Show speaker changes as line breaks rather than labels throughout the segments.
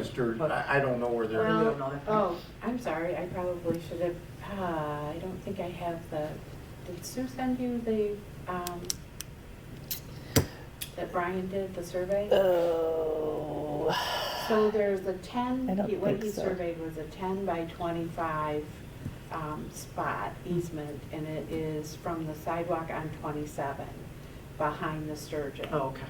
registered, I, I don't know where they're.
Well,
another part.
oh, I'm sorry, I probably should have, ah, I don't think I have the, did Sue send you the, um, that Brian did, the survey?
Uh, Oh.
So there's a
I
ten,
don't
he- what
think
he
so.
surveyed was a ten by twenty-five, um, spot
Hmm.
easement, and it is from the sidewalk on twenty-seven, behind the Sturgeon.
Oh, okay,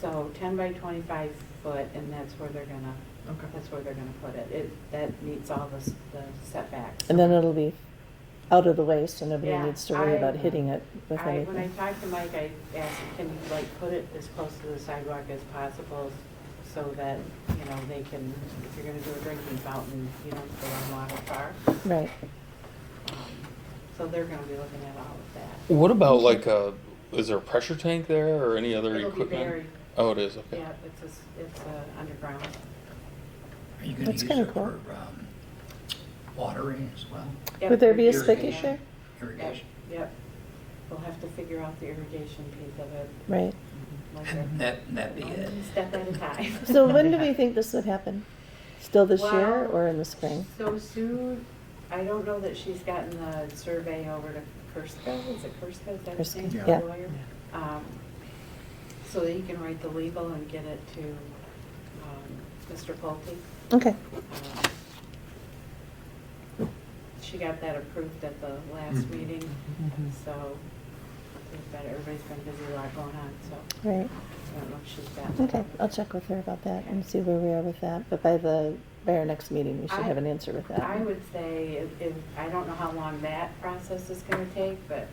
So ten by twenty-five foot, and that's where they're gonna,
okay.
that's where they're gonna put it. It, that meets all the, s- the setbacks.
And then it'll be out of the way, so nobody
Yeah,
needs to worry
I-
about hitting it with
I, when I
anything.
talked to Mike, I asked, can you like put it as close to the sidewalk as possible so that, you know, they can, if you're gonna do a drinking fountain, you don't go on water far.
Right.
So they're gonna be looking at all of that.
What about like a? Is there a pressure tank there or any other
It'll be
equipment?
buried,
Oh, it is. Okay.
yeah, it's a, s- it's a underground.
Are you gonna
That's
use it
kinda
for,
cool.
um, watering as well,
Yep,
Would there be a
irrigation.
spigot there?
Yep,
irrigation?
Yep, we'll have to figure out the irrigation piece of it.
Right.
like a-
That, that'd be it.
One Step at a time.
So when do we think this would happen? Still this year
Well-
or in the spring?
So Sue, I don't know that she's gotten the survey over to Kerska, is it Kerska, is that his
Kerska,
name, the
yeah.
lawyer? Um, So that he can write the legal and get it to um, Mr. Pulte.
Okay.
Um, She got that approved at the last
Mhm.
meeting, so we've got- everybody's been busy, a lot going on, so
Right.
I don't know if she's gotten that.
Okay. I'll check with her about that and see where we are with that. But by the by our next meeting, we should
I-
have an answer with that.
I would say, if- if, I don't know how long that process is gonna take, but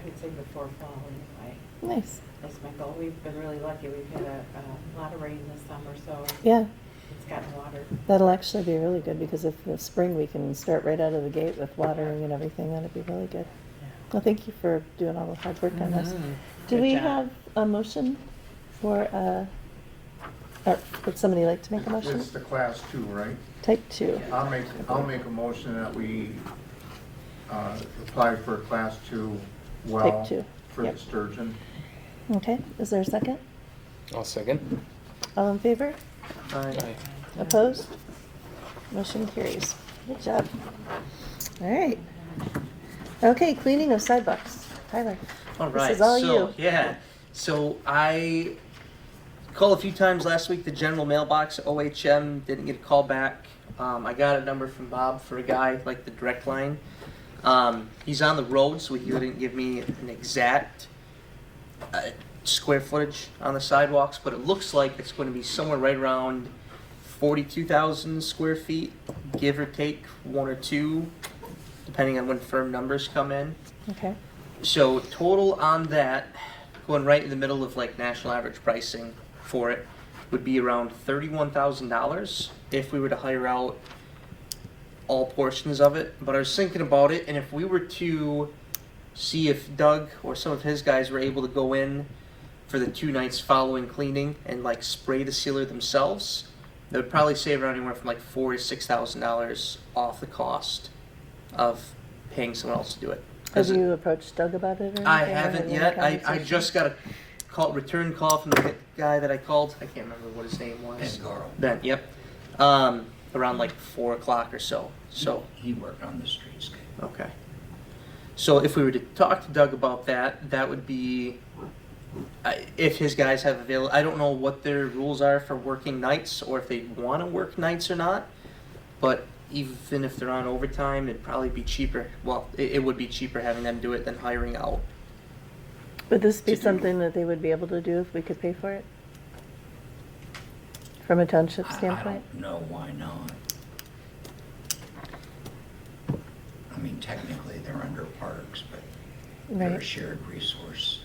I would say before fall anyway.
Nice.
That's my goal. We've been really lucky. We've had a, a lot of rain this summer, so
Yeah.
it's gotten water.
That'll actually be really good because if the spring we can start right out of the gate with watering and everything, that'd be really good. Well, thank you for doing all the hard work on this. Do
Mm-hmm. Good
we
job.
have a motion for, uh, or would somebody like to make a motion?
It's the class two, right?
Type two.
I'll make, I'll make a motion that we, uh, apply for a class two well.
Type two,
For the
yep.
sturgeon.
Okay, is there a second?
I'll second.
All in favor?
Aye.
Opposed? Motion carries. Good job. All right. Okay, cleaning of sidewalks. Tyler.
All
this
right.
is all
so,
you.
Yeah. So I called a few times last week. The general mailbox OHM didn't get a call back. Um, I got a number from Bob for a guy like the direct line. Um, he's on the road, so he wouldn't give me an exact uh, square footage on the sidewalks, but it looks like it's going to be somewhere right around 42,000 square feet, give or take one or two, depending on when firm numbers come in.
Okay,
So total on that, going right in the middle of like national average pricing for it, would be around thirty-one thousand dollars if we were to hire out all portions of it. But I was thinking about it, and if we were to see if Doug or some of his guys were able to go in for the two nights following cleaning and like spray the sealer themselves, they would probably save around anywhere from like four to six thousand dollars off the cost of paying someone else to do it. 'Cause
have
it-
you approached Doug about it or anything? or
I
had
haven't
any
yet. I, I
conversation?
just got a call return call from the guy that I called. I can't remember what his name
And
was.
Goro,
Ben. Yep. Um, around like four o'clock or so. So
he worked on the streetscape.
okay. So if we were to talk to Doug about that, that would be I, if his guys have avail. I don't know what their rules are for working nights or if they want to work nights or not. But even if they're on overtime, it'd probably be cheaper. Well, it, it would be cheaper having them do it than hiring out.
Would this be
to do.
something that they would be able to do if we could pay for it? From a township
I-
standpoint?
I don't know why not. I mean, technically, they're under parks, but they're a
Right.
shared resource.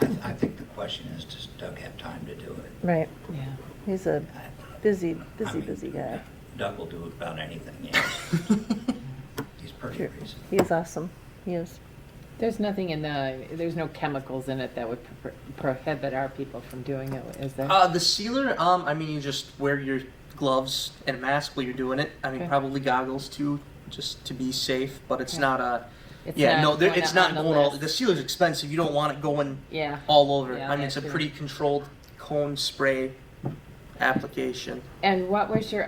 I, I think the question is, does Doug have time to do it?
Right.
Yeah.
He's a
I-
busy,
I
busy,
mean,
busy guy.
Doug will do about anything, yes. He's pretty
Sure.
reasonable.
He is awesome. He is.
There's nothing in the, there's no chemicals in it that would pro- prohibit our people from doing it, is there?
Uh, the sealer, um, I mean, you just wear your gloves and a mask while you're doing it. I mean,
Okay.
probably goggles too, just to be safe. But it's
Okay.
not a
It's
yeah,
not
no, there,
going
it's
on
not
the
going all.
list.
The sealer's expensive. You don't want it going
Yeah,
all over.
Yeah,
I mean, it's a
that's true.
pretty controlled cone spray application.
and what was your